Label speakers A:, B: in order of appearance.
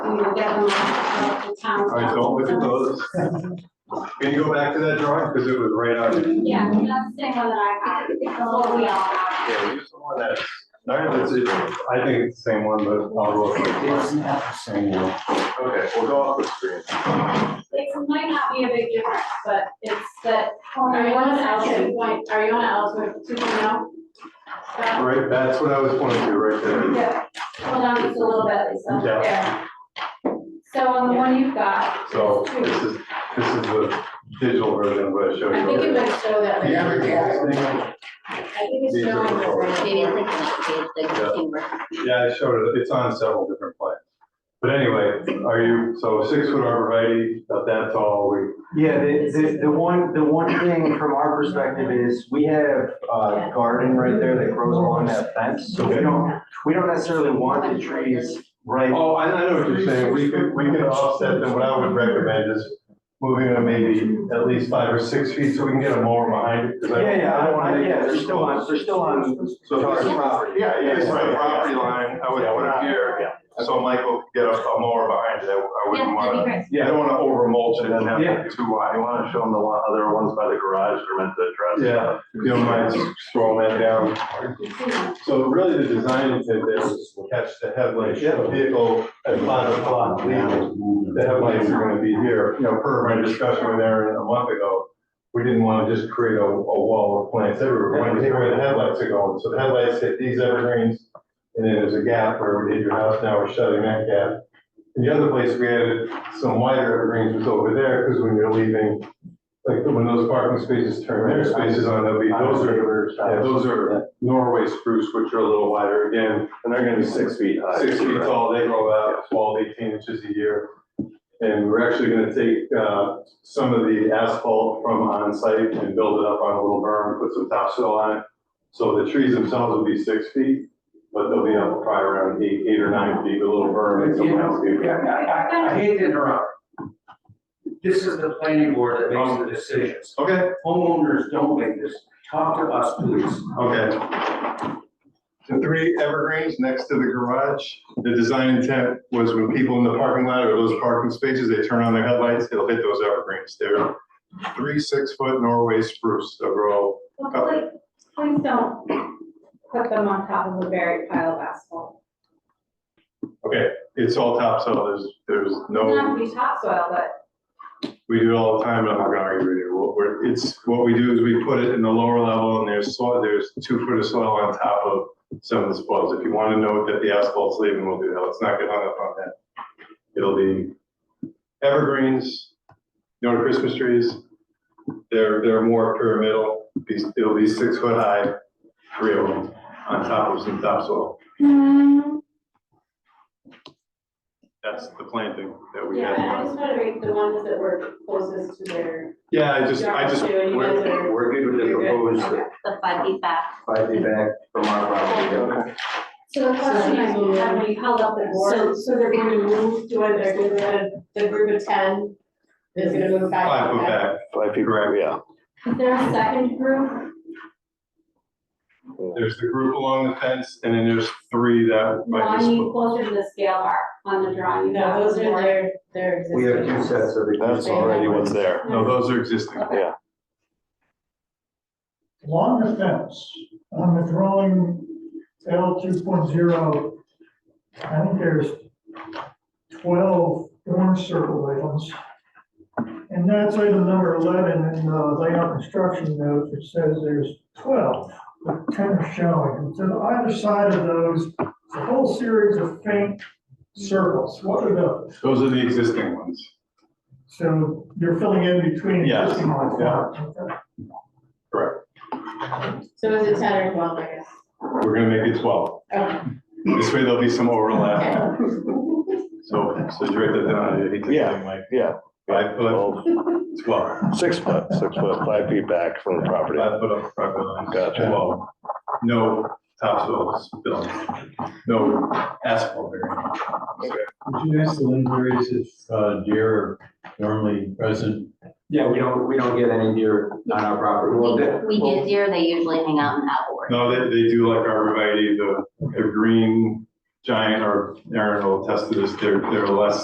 A: we will get one at the town.
B: I don't look at those. Can you go back to that drawing? Because it was right on. it.
A: Yeah, that's the same one that I have, it's what we all have.
B: Yeah, use the one that, no, it's, it- I think it's the same one, but I'll go. with it. Okay, we'll go off the screen.
A: It might not be a big difference, but it's that.
C: Are you on
A: section.
C: Ellsworth point, are you on Ellsworth two point oh? That,
B: Right, that's what I was pointing to, right there.
A: Yeah, hold on just a little bit, Lisa.
B: Yeah.
A: There. So on the one you've got,
B: So this is, this is the digital version of what I showed
C: I think it
B: you.
C: might show that. right
B: Yeah,
C: there.
B: yeah.
C: I think
B: These
C: it's
B: are the
C: showing that right
B: colors.
D: Maybe it's
C: here.
D: like the, the, the timber.
B: Yeah, I showed it, it's on several different plans. But anyway, are you, so six foot arborvitae, about that tall, we,
E: Yeah, the, the, the one, the one thing from our perspective is we have a garden right there that grows along that fence. So we don't, we don't necessarily want the trees right.
B: oh, I I know what you're saying, we could, we could offset them, what I would recommend is moving them maybe at least five or six feet so we can get a mower behind it. 'cause I-
E: Yeah, yeah,
B: I don't wanna
E: I-
B: make
E: yeah,
B: it
E: they're
B: too
E: still on,
B: close.
E: they're still on
B: So if
E: our
B: this-
E: property.
B: Yeah, yeah, it's
E: Yeah.
B: the property line, I would put it here, so Michael get a a mower behind it, I I wouldn't
D: Yeah, that'd
B: wanna,
D: be great.
B: I don't wanna over mulch it and have
E: Yeah.
B: it too wide.
F: You want to show them the one- other ones by the garage they're meant to address?
B: Yeah, if you don't mind scrolling that down. So really, the design intent there is to catch the headlights, you have a vehicle at five o'clock leaving. The headlights are gonna be here, you know, per my discussion with Aaron a month ago, we didn't wanna just create a, a wall of plants everywhere, we wanted to hit where the headlights are going, so the headlights hit these evergreens. And then there's a gap where we hit your house, now we're shutting that gap. And the other place we added some wider evergreens was over there, because when you're leaving, like when those parking spaces turn their spaces on, they'll be, those are yeah, those are Norway spruce, which are a little wider again,
F: And they're gonna be six feet high.
B: six feet tall, they grow out 12, 18 inches a year. And we're actually gonna take, uh, some of the asphalt from on site and build it up on a little berm, put some topsoil on it. So the trees themselves will be six feet, but they'll be up probably around eight, eight or nine feet, with a little berm and some landscaping.
G: Yeah, I, I- I hate to interrupt. This is the planning board that makes the decisions.
B: Okay,
G: Homeowners don't make this. Talk to us, please.
B: Okay. The three evergreens next to the garage, the design intent was when people in the parking lot or those parking spaces, they turn on their headlights, it'll hit those evergreens. They're three six-foot Norway spruce, they'll grow.
A: well, please, please don't put them on top of a buried pile of asphalt.
B: Okay, it's all topsoil, there's, there's
A: Doesn't
B: no,
A: have to be topsoil, but
B: we do it all the time, and I'm not gonna argue with you. What we're, it's, what we do is we put it in the lower level and there's soil, there's two foot of soil on top of some of the spoils. If you wanna know that the asphalt's leaving, we'll do that. Let's not get hung up on that. It'll be evergreens, you know, Christmas trees. They're, they're more pyramidal, Be- it'll be six foot high, three of them, on top of some topsoil. That's the planting that we
C: Yeah,
B: had. in
C: and I
B: mind.
C: just wanted to read the ones that were closest to their,
B: Yeah, I just, I just,
C: Yeah, you guys
B: we're,
C: are-
B: we're good with the
C: you're good.
B: proposed
D: The five feet back.
B: five feet back from our property.
A: so the question I have, when you held up the
C: so,
A: board,
C: so they're going to move to where they're going to, the group of ten is going to move back.
B: Five
C: on
B: foot
C: that.
B: back,
F: Five feet, right, yeah.
A: is there a second group?
B: there's the group along the fence, and then there's three that might be.
A: One
B: split.
A: closer to the scale bar on the drawing. you
C: No,
A: have
C: those
A: the
C: are
A: board.
C: their, their existing.
E: We have two sets of.
F: That's already what's there.
B: No, those are existing.
H: Along the fence, on the drawing L two point zero, I think there's twelve orange circle items. And that's item number eleven in the layout construction notes, it says there's twelve, but ten are showing. And to either side of those, it's a whole series of faint circles, what are those?
B: Those are the existing ones.
H: So you're filling in between
B: Yes,
H: existing ones.
B: yeah.
H: Okay.
B: Correct.
C: So is it ten or twelve, I guess?
B: We're gonna make it twelve.
C: Okay.
B: This way there'll be some overlap. So, so you write that down, I hate to
F: Yeah.
B: say, like,
F: Yeah.
B: five foot,
F: Well,
B: twelve.
F: Six foot, six foot, five feet back from the property.
B: Five foot up, five foot on.
F: Gotcha.
B: Twelve. No topsoil spilling, no asphalt there.
I: Would you ask the Lindberries if uh, deer are normally present?
E: Yeah, we don't, we don't get any deer on our property. Well, that-
D: We, we get deer, they usually hang out in that board.
B: No, they, they do like arborvitae, the, the green giant, or Aaron will attest to this, they're, they're less